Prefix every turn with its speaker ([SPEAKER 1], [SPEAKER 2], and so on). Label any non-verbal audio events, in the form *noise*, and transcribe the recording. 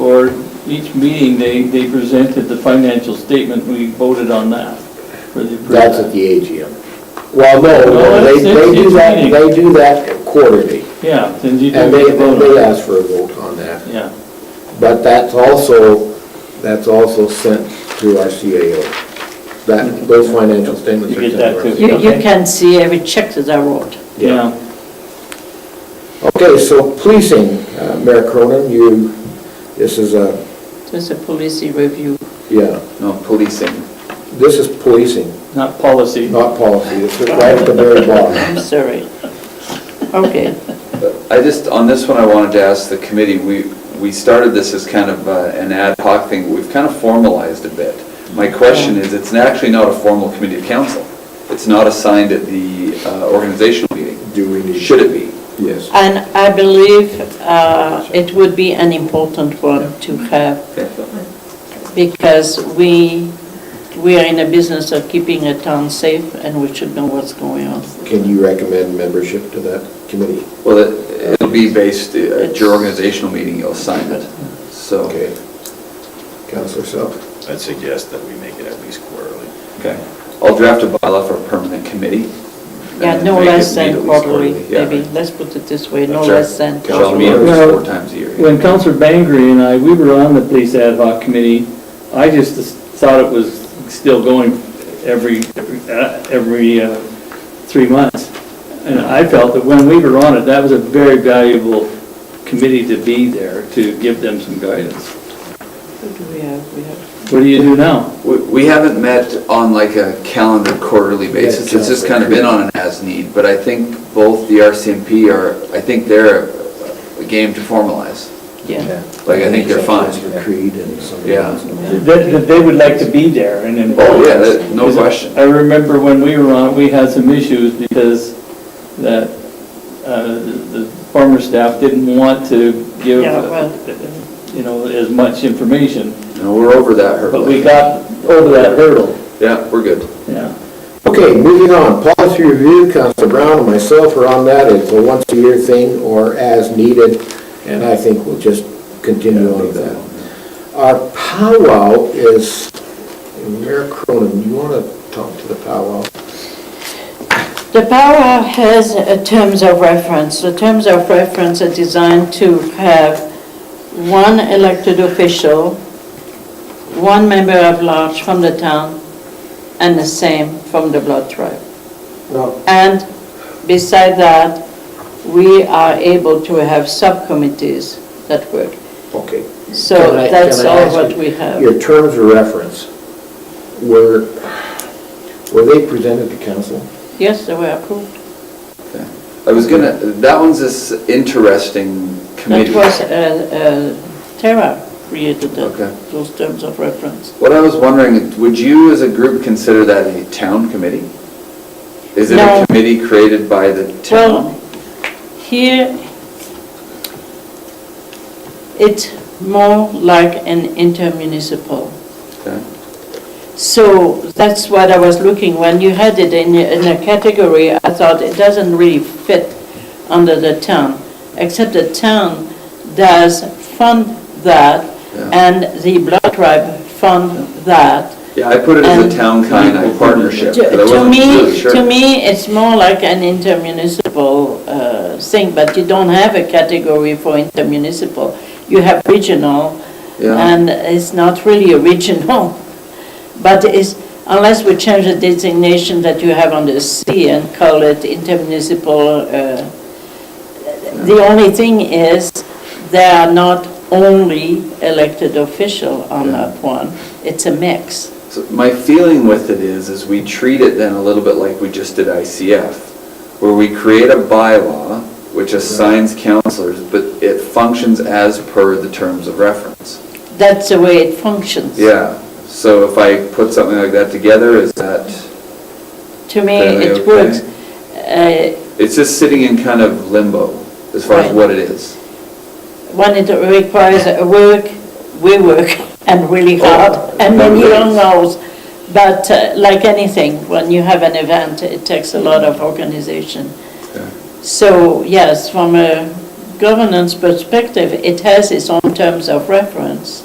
[SPEAKER 1] each meeting, they, they presented the financial statement, we voted on that for the. for
[SPEAKER 2] That's
[SPEAKER 1] that.
[SPEAKER 2] at the AGM. Well, no, no,
[SPEAKER 1] No,
[SPEAKER 2] they,
[SPEAKER 1] it's-
[SPEAKER 2] they
[SPEAKER 1] it's-
[SPEAKER 2] do
[SPEAKER 1] it's
[SPEAKER 2] that,
[SPEAKER 1] meeting.
[SPEAKER 2] they do that quarterly,
[SPEAKER 1] Yeah, then you do
[SPEAKER 2] and
[SPEAKER 1] make
[SPEAKER 2] they,
[SPEAKER 1] a vote on
[SPEAKER 2] they
[SPEAKER 1] it.
[SPEAKER 2] ask for a vote on that.
[SPEAKER 1] Yeah,
[SPEAKER 2] But that's also, that's also sent to our CAO. That, those financial statements
[SPEAKER 1] You
[SPEAKER 2] are
[SPEAKER 1] get
[SPEAKER 2] sent
[SPEAKER 1] that
[SPEAKER 2] to our
[SPEAKER 1] too.
[SPEAKER 2] CAO.
[SPEAKER 3] You, you
[SPEAKER 1] Okay.
[SPEAKER 3] can see every check that I wrote.
[SPEAKER 1] yeah.
[SPEAKER 2] Okay, so policing, uh, Mayor Cronin, you, this is a,
[SPEAKER 3] There's a policy review.
[SPEAKER 2] yeah,
[SPEAKER 4] No, policing.
[SPEAKER 2] this is policing,
[SPEAKER 1] Not policy.
[SPEAKER 2] not policy, it's right at the very bottom.
[SPEAKER 3] I'm sorry. Okay.
[SPEAKER 4] I just, on this one, I wanted to ask the committee, we, we started this as kind of uh, an ad hoc thing, we've kind of formalized a bit. My question is, it's actually not a formal committee of council. It's not assigned at the uh, organizational meeting.
[SPEAKER 2] Do we need?
[SPEAKER 4] Should it be?
[SPEAKER 2] Yes.
[SPEAKER 3] And I believe uh, it would be an important one to have because we, we are in a business of keeping a town safe and we should know what's going on.
[SPEAKER 2] Can you recommend membership to that committee?
[SPEAKER 4] Well, it- it'll be based, uh, at your organizational meeting, you'll assign it, so.
[SPEAKER 2] Okay. Counselor Self?
[SPEAKER 5] I'd suggest that we make it at least quarterly.
[SPEAKER 4] Okay. I'll draft a bylaw for a permanent committee.
[SPEAKER 3] Yeah,
[SPEAKER 4] and
[SPEAKER 3] no
[SPEAKER 4] make it
[SPEAKER 3] less
[SPEAKER 4] meet at
[SPEAKER 3] than
[SPEAKER 4] least
[SPEAKER 3] quarterly,
[SPEAKER 4] yeah.
[SPEAKER 3] maybe. Let's put it this way, no
[SPEAKER 4] Sure.
[SPEAKER 3] less than.
[SPEAKER 4] Shall meet at least four times a year.
[SPEAKER 1] When Counselor Bangry and I, we were on the police ad hoc committee, I just thought it was still going every, every, uh, every uh, three months. And I felt that when we were on it, that was a very valuable committee to be there, to give them some guidance.
[SPEAKER 3] What do we have? We have
[SPEAKER 1] What do you do now?
[SPEAKER 4] We we haven't met on like a calendar quarterly basis, it's just kind of been on an as-need, but I think both the RCMP are, I think they're a game to formalize.
[SPEAKER 3] Yeah.
[SPEAKER 4] Like, I think they're fine.
[SPEAKER 2] Counselor Creed and somebody
[SPEAKER 4] Yeah.
[SPEAKER 2] else.
[SPEAKER 1] That, that they would like to be there and
[SPEAKER 4] Oh,
[SPEAKER 1] involved.
[SPEAKER 4] yeah, that- no
[SPEAKER 1] Because
[SPEAKER 4] question.
[SPEAKER 1] I remember when we were on, we had some issues because that, uh, the former staff didn't want to give,
[SPEAKER 3] Yeah, well-
[SPEAKER 1] you know, as much information,
[SPEAKER 4] No, we're over that hurdle.
[SPEAKER 1] but we got over that hurdle,
[SPEAKER 4] Yeah, we're good.
[SPEAKER 1] yeah.
[SPEAKER 2] Okay, moving on, policy review, Counselor Brown and myself are on that, it's a once-a-year thing or as needed, and I think we'll just continue on with that. Our powwow is, Mayor Cronin, you want to talk to the powwow?
[SPEAKER 3] The power has uh, terms of reference. The terms of reference are designed to have one elected official, one member of large from the town, and the same from the blood tribe.
[SPEAKER 2] No.
[SPEAKER 3] And beside that, we are able to have subcommittees that work.
[SPEAKER 2] Okay.
[SPEAKER 3] So
[SPEAKER 2] Can I-
[SPEAKER 3] that's
[SPEAKER 2] can I
[SPEAKER 3] all
[SPEAKER 2] ask
[SPEAKER 3] what
[SPEAKER 2] you-
[SPEAKER 3] we have.
[SPEAKER 2] Your terms of reference, were, were they presented to council?
[SPEAKER 3] Yes, they were approved.
[SPEAKER 4] Yeah. I was gonna, that one's this interesting
[SPEAKER 3] That
[SPEAKER 4] committee.
[SPEAKER 3] was, uh, uh, Tara created that-
[SPEAKER 4] Okay.
[SPEAKER 3] those terms of reference.
[SPEAKER 4] What I was wondering, would you as a group consider that a town committee? Is it
[SPEAKER 3] No.
[SPEAKER 4] a committee created by the
[SPEAKER 3] Well,
[SPEAKER 4] town?
[SPEAKER 3] here, it's more like an intermunicipal.
[SPEAKER 4] Okay.
[SPEAKER 3] So that's what I was looking, when you had it in, a- in a category, I thought it doesn't really fit under the town, except the town does fund that,
[SPEAKER 4] Yeah.
[SPEAKER 3] and the blood tribe fund that.
[SPEAKER 4] Yeah, I put it as
[SPEAKER 3] And-
[SPEAKER 4] a town kind of partnership,
[SPEAKER 3] um, To
[SPEAKER 4] but I
[SPEAKER 3] to
[SPEAKER 4] wasn't really
[SPEAKER 3] me,
[SPEAKER 4] sure.
[SPEAKER 3] to me, it's more like an intermunicipal uh, thing, but you don't have a category for intermunicipal. You have regional,
[SPEAKER 4] Yeah.
[SPEAKER 3] and it's not really a regional. But it's, unless we change the designation that you have on the C and call it intermunicipal, uh, the only thing is, they are not only elected official on
[SPEAKER 4] Yeah.
[SPEAKER 3] that one. It's a mix.
[SPEAKER 4] So My feeling with it is, is we treat it then a little bit like we just did ICF, where we create a bylaw which assigns counselors, but it functions as per the terms of reference.
[SPEAKER 3] That's the way it functions.
[SPEAKER 4] Yeah, so if I put something like that together, is that,
[SPEAKER 3] To me,
[SPEAKER 4] Fairly
[SPEAKER 3] it
[SPEAKER 4] okay.
[SPEAKER 3] works. Uh,
[SPEAKER 4] it's just sitting in kind of limbo as far as
[SPEAKER 3] Right.
[SPEAKER 4] what it is.
[SPEAKER 3] When it requires a work, we work, *laughs* and really
[SPEAKER 4] Oh,
[SPEAKER 3] hard, and many
[SPEAKER 4] lovely.
[SPEAKER 3] long hours. But uh, like anything, when you have an event, it takes a lot of organization.
[SPEAKER 4] Yeah.
[SPEAKER 3] So yes, from a governance perspective, it has its own terms of reference.